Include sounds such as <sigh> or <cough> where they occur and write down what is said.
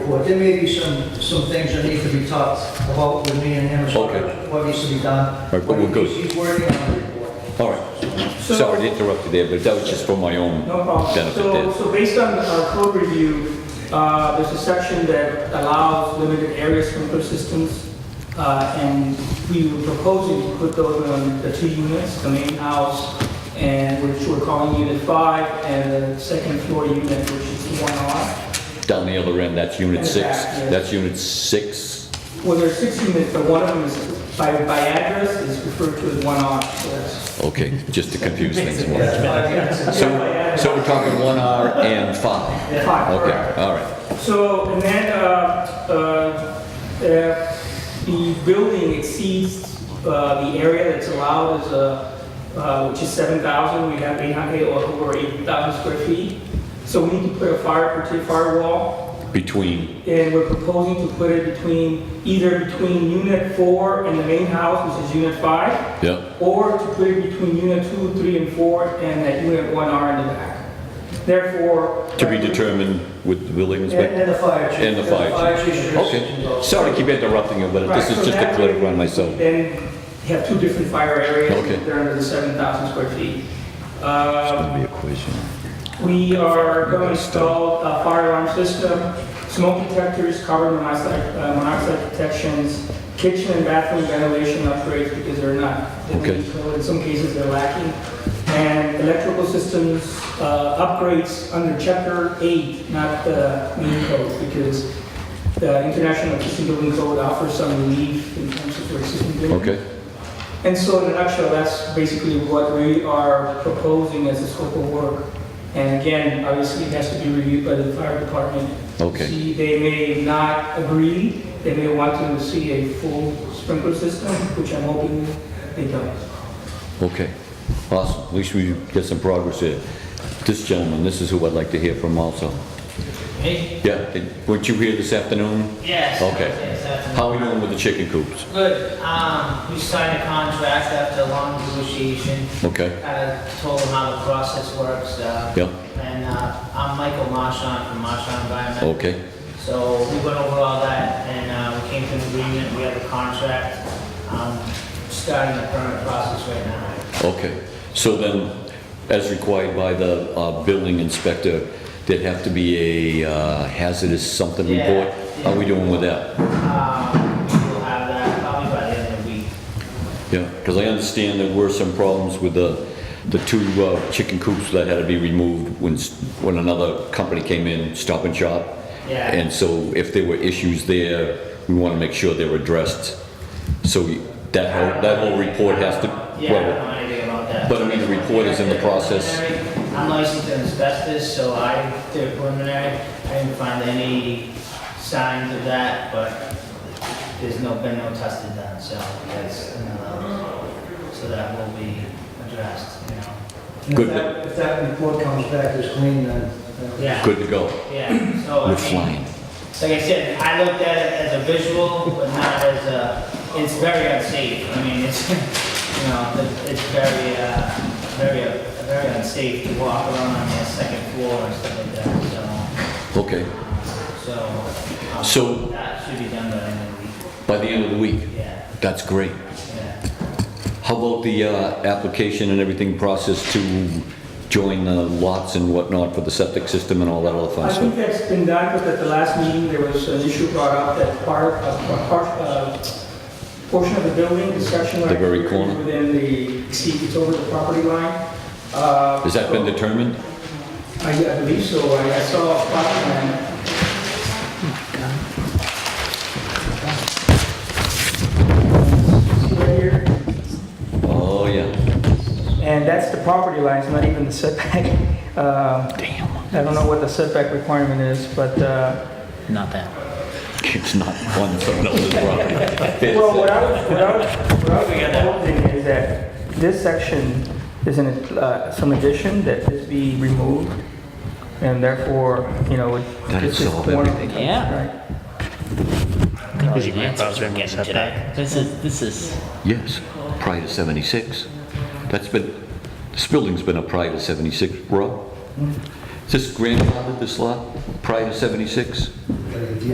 forward. There may be some, some things that need to be talked about with me and him as far Okay. as what needs to be done. Right, but we're good. He's working on the report. All right. Sorry to interrupt you there, but that was just for my own No problem. benefit So, there. so based on our code review, uh, there's a section that allows limited area sprinkler systems. Uh, and we were proposing to put those on the two units, the main house, and which we're calling unit five, and the second floor unit, which is one R. Down the other end, that's unit And six. back, yeah. That's unit six. Well, there's six units, but one of them is by, by address is referred to as one R, so that's. Okay, just to confuse things <laughs> more. Yeah, five minutes. So, so we're talking one hour and five. Five, correct. Okay, all right. So, and then, uh, uh, if the building exceeds, uh, the area that's allowed is, uh, uh, which is seven thousand, we have eight hundred, or over eight thousand square feet. So we need to put a fire, prote- firewall, Between, and we're proposing to put it between, either between unit four and the main house, which is unit five, yeah, or to put it between unit two, three, and four, and that unit one R in the back. Therefore. to be determined with the building And inspector and the fire chief. and the fire chief. should- Okay, sorry to keep interrupting you, but this Right, is so just to that way- clarify myself. Then you have two different fire areas. Okay. They're under the 7,000 square feet. Uh, Be a question. We are going to install a fire alarm system, smoke detectors, carbon monoxide uh, monoxide detections, kitchen and bathroom ventilation upgrades because they're not, Okay. in some cases they're lacking, and electrical systems uh, upgrades under Chapter 8, not the main code, because the International Kitchen Building Code offers some relief in terms of for existing buildings. Okay, And so in a nutshell, that's basically what we are proposing as a scope of work. And again, obviously, it has to be reviewed by the fire department. Okay. See, They may not agree, they may want to see a full sprinkler system, which I'm hoping they don't. okay. Awesome, at least we get some progress here. This gentleman, this is who I'd like to hear from also. Me? Yeah, did- weren't you here this afternoon? Yes. Okay. Yes, that's- How are we doing with the chicken coops? Good. Um, we signed a contract after a long negotiation. Okay, Kind of told them how the process works. Uh, yeah, And uh, I'm Michael Marchand from Marchand Environmental. okay, So we went over all that and uh, we came to an agreement. We have a contract. Um, starting the permit process right now. okay. So then, as required by the uh, building inspector, there'd have to be a uh, hazardous something Yeah, report? How are we doing with that? Um, we'll have that probably by the end of the week. Yeah, because I understand there were some problems with the, the two uh, chicken coops that had to be removed when, s- when another company came in, Stop and Shop. Yeah. And so if there were issues there, we want to make sure they're addressed. So we- that whole, that whole report has to, Yeah, I don't well, know anything about that. But I mean, the report is in the process. I'm licensed in asbestos, so I did preliminary. I didn't find any signs of that, but there's no, been no testing done, so that's another, so that will be addressed, you know? And Good. If that- if that report comes back as clean, then. then- Yeah, good to go. yeah, so I We're mean, flying. like I said, I looked at it as a visual, but not as a, it's very unsafe. I mean, it's, <laughs> you know, the- it's very, uh, very, uh, very unsafe to walk around on the second floor and stuff like that, Okay, so, so. um, So- That should be done by the end of the week, by the end of the week, yeah, that's great. yeah. How about the uh, application and everything process to join the lots and whatnot for the septic system and all that other fun I think stuff? that's been done, but at the last meeting, there was an issue brought up that part, a part, uh, portion of the building, the section. The very corner? Within the, see, it's over the property line. Uh, Has that been determined? I I believe so, I I saw a plot plan. See right here? Oh, yeah. And that's the property line, it's not even the setback. <laughs> Um, I don't know what the setback requirement is, but, uh, Not that. It's not on someone else's property. It's, well, what uh, I was, what I was, what I was hoping is that this section is in, uh, some addition that this be removed, and therefore, you know, it- That'd this is solve corner. everything. Yeah. Right. Because your grandfather's been getting today. This is, this is, Yes, prior to 76. That's been, this building's been a prior to 76, bro. Is this grandfathered, this lot, prior to 76? But if you